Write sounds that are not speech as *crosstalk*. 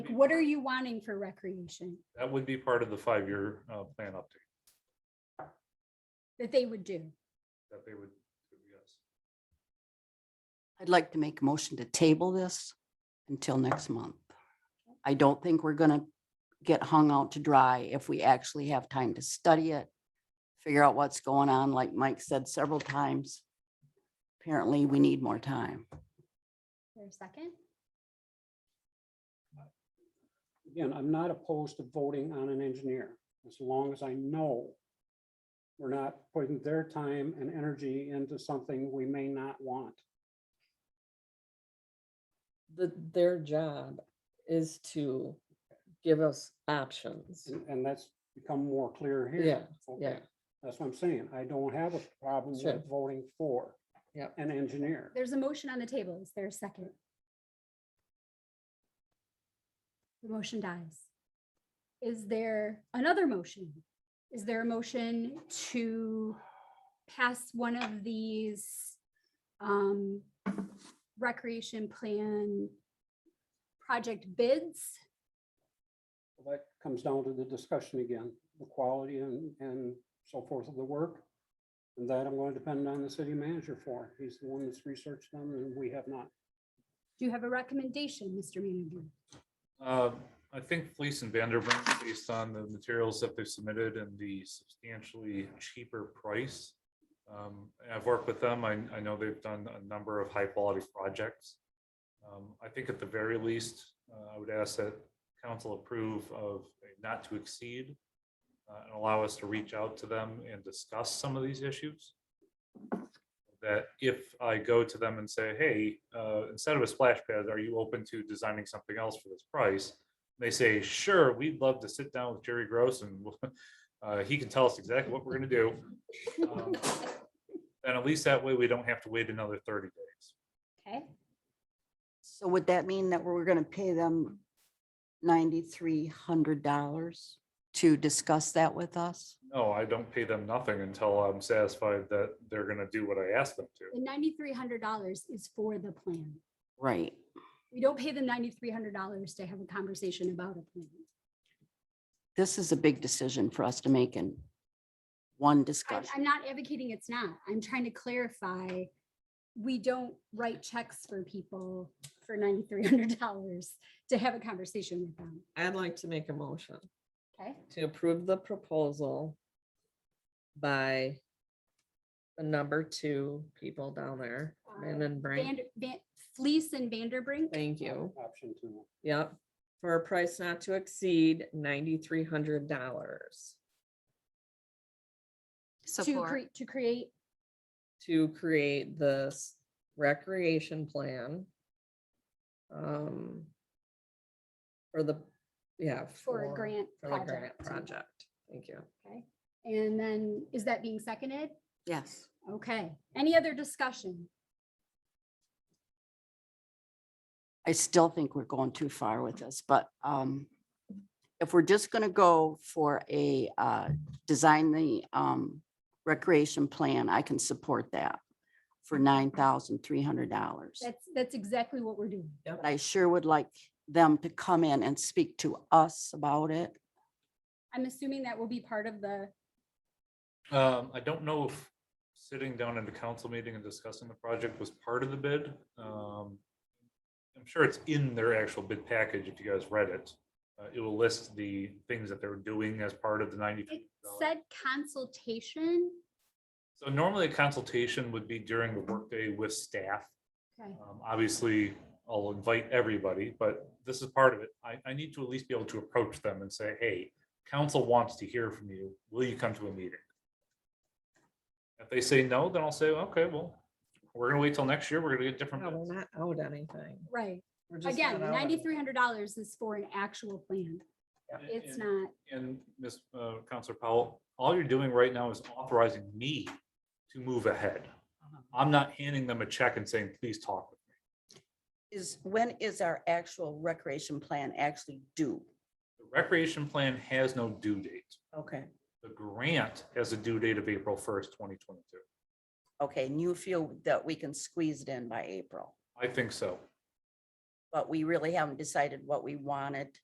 What are you wanting for recreation That would be part of the five-year uh, plan update that they would do? that they would, do, yes. I'd like to make a motion to table this until next month. I don't think we're gonna get hung out to dry if we actually have time to study it. Figure out what's going on, like Mike said several times. Apparently, we need more time. For a second? again, I'm not opposed to voting on an engineer, as long as I know we're not putting their time and energy into something we may not want. the, their job is to give us options. And- And that's become more clear here. Yeah, Okay, yeah. That's what I'm saying. I don't have a problem Sure. with voting for Yep. an engineer. There's a motion on the table. Is there a second? The motion dies. Is there another motion? Is there a motion to pass one of these um, recreation plan project bids? That comes down to the discussion again, the quality and, and so forth of the work. And that I'm going to depend on the city manager for. He's the one that's researched them and we have not. Do you have a recommendation, Mr. Manager? Uh, I think Fleece and Vanderbrink, based on the materials that they've submitted and the substantially cheaper price. um, and I've worked with them. I, I know they've done a number of high-quality projects. Um, I think at the very least, uh, I would ask that council approve of a not to exceed uh, and allow us to reach out to them and discuss some of these issues. That if I go to them and say, hey, uh, instead of a splash pad, are you open to designing something else for this price? They say, sure, we'd love to sit down with Jerry Gross and *laughs* uh, he can tell us exactly what we're gonna do. Um, And at least that way, we don't have to wait another thirty days. Okay, So would that mean that we're gonna pay them ninety-three hundred dollars to discuss that with us? No, I don't pay them nothing until I'm satisfied that they're gonna do what I asked them to. the ninety-three hundred dollars is for the plan. Right. We don't pay them ninety-three hundred dollars to have a conversation about a plan. This is a big decision for us to make in one I- discussion. I'm not advocating it's not. I'm trying to clarify. We don't write checks for people for ninety-three hundred dollars to have a conversation with them, I'd like to make a motion okay? to approve the proposal by the number two people down there, and then bring, Vander- Van, Fleece and Vanderbrink, thank you, Option two. yep, for a price not to exceed ninety-three hundred dollars to create, to create, to create this recreation plan. Um, for the, yeah. For a grant For the grant project. project, thank you. okay? And then, is that being seconded? Yes. Okay, any other discussion? I still think we're going too far with this, but um, if we're just gonna go for a uh, design the um, recreation plan, I can support that for nine thousand three hundred dollars. That's, that's exactly what we're doing. But I sure would like them to come in and speak to us about it. I'm assuming that will be part of the, Um, I don't know if sitting down at a council meeting and discussing the project was part of the bid. Um, I'm sure it's in their actual bid package if you guys read it. Uh, it will list the things that they're doing as part of the it ninety-three. said consultation. So normally a consultation would be during the workday with staff. Okay, Um, Obviously, I'll invite everybody, but this is part of it. I, I need to at least be able to approach them and say, hey, council wants to hear from you. Will you come to a meeting? If they say no, then I'll say, okay, well, we're gonna wait till next year. We're gonna get different No, bids. we're not owed anything. right. We're just Again, not owed anything. ninety-three hundred dollars is for an actual plan. It's And- not, And Ms. uh, Counselor Powell, all you're doing right now is authorizing me to move ahead. Uh-huh. I'm not handing them a check and saying, please talk with me. Is, when is our actual recreation plan actually due? The recreation plan has no due date. Okay. The grant has a due date of April first, twenty twenty-two. Okay, and you feel that we can squeeze it in by April? I think so. but we really haven't decided what we wanted